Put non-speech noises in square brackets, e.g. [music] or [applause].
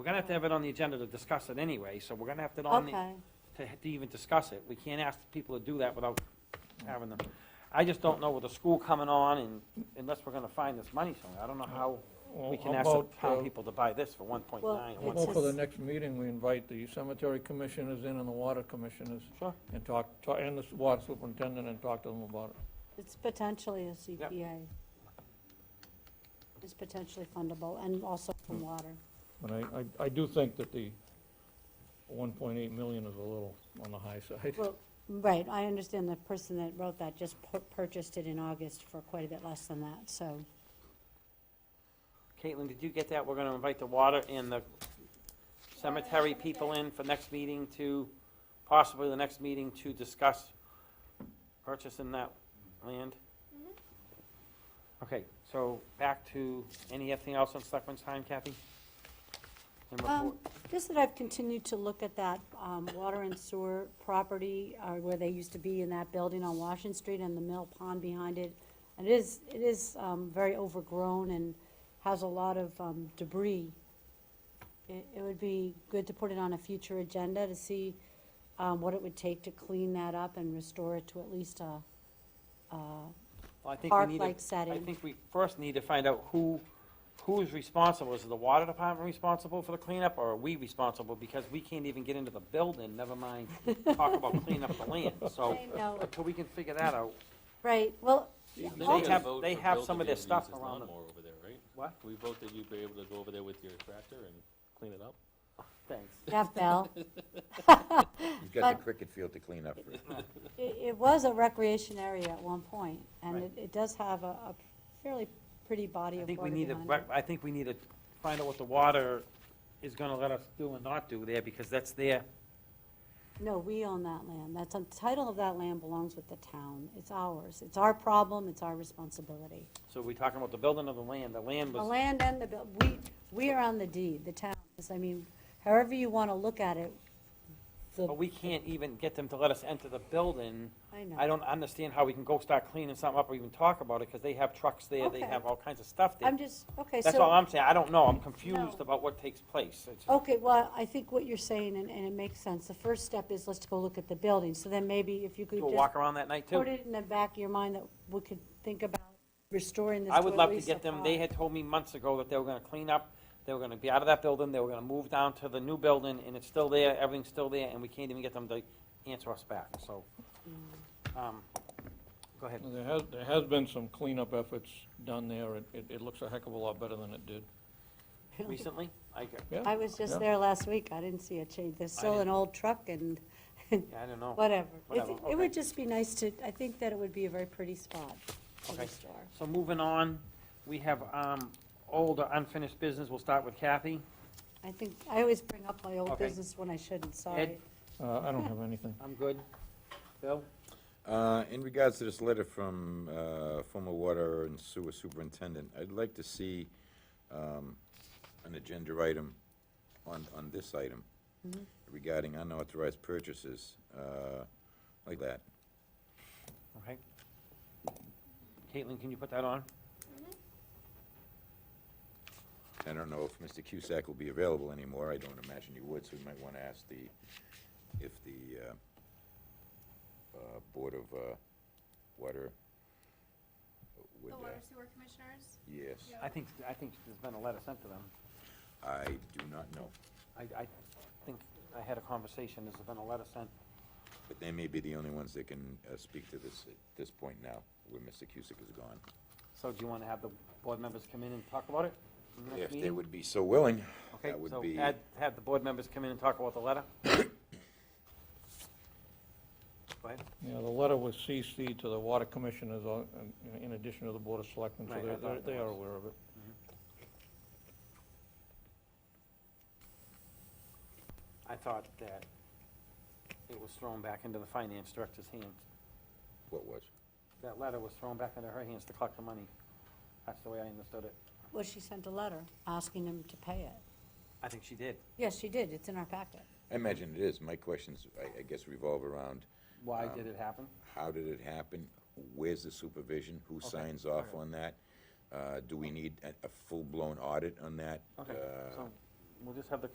We're gonna have to have it on the agenda to discuss it anyway, so we're gonna have to, on the- Okay, to to even discuss it. We can't ask people to do that without having them. I just don't know with the school coming on and unless we're gonna find this money somewhere, I don't know how we can ask the town people to buy this for one point nine. Well, one point- it's a- uh, Well, for the next meeting, we invite the cemetery commissioners in and the water commissioners Sure. and talk, ta- and the water superintendent and talk to them about it. it's potentially a CPA. It's potentially fundable, and also from water. But I, I, I do think that the one point eight million is a little on the high side. Well, right, I understand the person that wrote that just pur- purchased it in August for quite a bit less than that, so. Caitlin, did you get that? We're gonna invite the water and the cemetery people in for next meeting to, possibly the next meeting to discuss purchasing that land? Okay, so back to, anything else on Selectmen's time, Kathy? And Um, report- Just that I've continued to look at that um, water and sewer property, uh, where they used to be in that building on Washington Street and the mill pond behind it. And it is, it is um, very overgrown and has a lot of um, debris. It it would be good to put it on a future agenda to see um, what it would take to clean that up and restore it to at least a a Well, I think we need to- park-like I setting. think we first need to find out who, who's responsible. Is the water department responsible for the cleanup, or are we responsible? Because we can't even get into the building, never mind talk [laughs] about cleaning up the land, so I know, until we can figure that out. Right, well, They Oh. have, they have some of their stuff around the them. Lawnmower over there, right? What? We vote that you'd be able to go over there with your tractor and clean it up? Thanks. Jeff Bell. He's got the cricket field to clean up for. It, it was a recreation area at one point, and Right. it, it does have a, a fairly pretty body I of think we water need to, behind rec- it. I think we need to find out what the water is gonna let us do and not do there, because that's their, No, we own that land, that's, the title of that land belongs with the town, it's ours, it's our problem, it's our responsibility. so we're talking about the building of the land, the land The was. land and the, buil- we, we are on the deed, the town is, I mean, however you want to look at it, the, But we can't even get them to let us enter the building. I I know. don't understand how we can go start cleaning something up or even talk about it, because they have trucks there, they Okay. have all kinds of stuff there. I'm just, okay, so. That's all I'm saying, I don't know, I'm confused No. about what takes place. It's- Okay, well, I think what you're saying, and, and it makes sense, the first step is let's go look at the building, so then maybe if you could Do a just walk around that night put too? it in the back of your mind that we could think about restoring this I to would at love to least a get them, they par. had told me months ago that they were gonna clean up, they were gonna be out of that building, they were gonna move down to the new building, and it's still there, everything's still there, and we can't even get them to answer us back, so. um, Go ahead. There has, there has been some cleanup efforts done there. It, it, it looks a heck of a lot better than it did. Recently, I, g- Yeah. I was just Yeah. there last week, I didn't see a change, there's still an didn't- old truck and yeah, I don't know. whatever. It's- Whatever, It okay. would just be nice to, I think that it would be a very pretty spot to Okay. restore. So moving on, we have, um, old or unfinished business, we'll start with Kathy. I think, I always bring up my old Okay. business when I shouldn't, sorry. Uh, I don't have anything. I'm good. Bill? Uh, In regards to this letter from uh, former water and sewer superintendent, I'd like to see um, an agenda item on, on this item regarding unauthorized purchases, uh, like that. Okay. Caitlin, can you put that on? I don't know if Mr. Cusack will be available anymore, I don't imagine he would, so we might want to ask the, if the uh, uh, Board of uh, Water would, The uh, water sewer commissioners? yes, I think, I think there's been a letter sent to them. I do not know. I, I think I had a conversation, there's been a letter sent. But they may be the only ones that can uh, speak to this at this point now, where Mr. Cusick is gone. So do you want to have the board members come in and talk about it? in the next If they meeting? would be so willing, Okay, that would so be, add, have the board members come in and talk about the letter? [coughs] Go ahead. [laughs] Yeah, the letter was CC to the water commissioners on- in- in addition to the board of selectmen, so Right, I they're- they're, thought that they are was- aware of it. I thought that it was thrown back into the finance director's hands. what was? That letter was thrown back into her hands to collect the money. That's the way I understood it. Well, she sent a letter asking him to pay it. I think she did. Yes, she did, it's in our packet. I imagine it is. My questions, I, I guess revolve around, Why Um, did it happen? how did it happen? Where's the supervision? Who Okay, signs off alright. on that? Uh, Do we need a, a full-blown audit on that? Okay, Uh, so we'll just have the